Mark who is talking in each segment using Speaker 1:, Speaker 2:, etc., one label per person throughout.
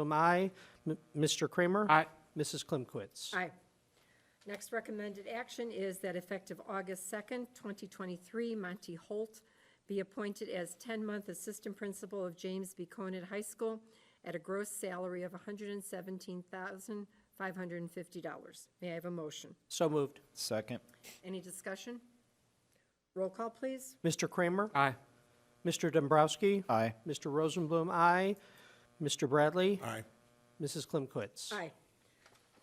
Speaker 1: Am I, M- Mr. Kramer?
Speaker 2: Aye.
Speaker 1: Mrs. Klimkowitz?
Speaker 3: Aye. Next recommended action is that effective August 2nd, 2023, Monty Holt be appointed as 10-month assistant principal of James B. Conant High School at a gross salary of $117,550. May I have a motion?
Speaker 1: So moved.
Speaker 4: Second.
Speaker 3: Any discussion? Roll call, please.
Speaker 1: Mr. Kramer?
Speaker 2: Aye.
Speaker 1: Mr. Dombrowski?
Speaker 4: Aye.
Speaker 1: Mr. Rosenblum, aye. Mr. Bradley?
Speaker 5: aye,
Speaker 1: Mrs. Klimkowitz?
Speaker 3: Aye.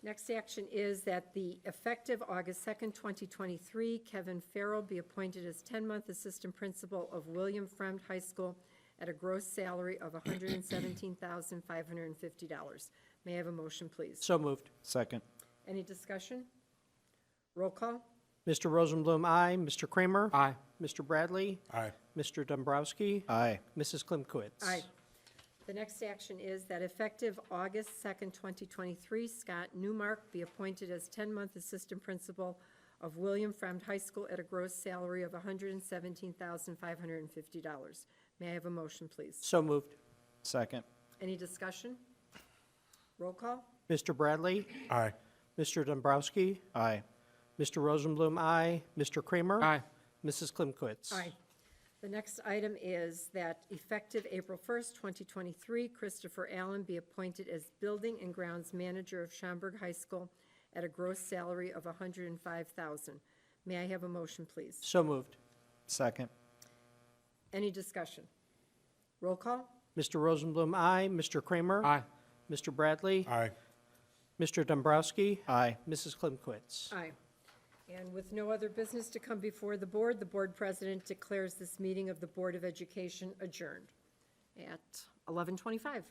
Speaker 3: Next action is that the effective August 2nd, 2023, Kevin Farrell be appointed as 10-month assistant principal of William Fremd High School at a gross salary of $117,550. May I have a motion, please?
Speaker 1: So moved.
Speaker 4: Second.
Speaker 3: Any discussion? Roll call?
Speaker 1: Mr. Rosenblum, aye. Mr. Kramer?
Speaker 2: Aye.
Speaker 1: Mr. Bradley?
Speaker 5: aye,
Speaker 1: Mr. Dombrowski?
Speaker 4: Aye.
Speaker 1: Mrs. Klimkowitz?
Speaker 3: Aye. The next action is that effective August 2nd, 2023, Scott Newmark be appointed as 10-month assistant principal of William Fremd High School at a gross salary of $117,550. May I have a motion, please?
Speaker 1: So moved.
Speaker 4: Second.
Speaker 3: Any discussion? Roll call?
Speaker 1: Mr. Bradley?
Speaker 5: aye,
Speaker 1: Mr. Dombrowski?
Speaker 4: Aye.
Speaker 1: Mr. Rosenblum, aye. Mr. Kramer?
Speaker 2: Aye.
Speaker 1: Mrs. Klimkowitz?
Speaker 3: Aye. The next item is that effective April 1st, 2023, Christopher Allen be appointed as Building and Grounds Manager of Schaumburg High School at a gross salary of $105,000. May I have a motion, please?
Speaker 1: So moved.
Speaker 4: Second.
Speaker 3: Any discussion? Roll call?
Speaker 1: Mr. Rosenblum, aye. Mr. Kramer?
Speaker 2: Aye.
Speaker 1: Mr. Bradley?
Speaker 5: aye,
Speaker 1: Mr. Dombrowski?
Speaker 4: Aye.
Speaker 1: Mrs. Klimkowitz?
Speaker 3: Aye. And with no other business to come before the board, the board president declares this meeting of the Board of Education adjourned at 11:25.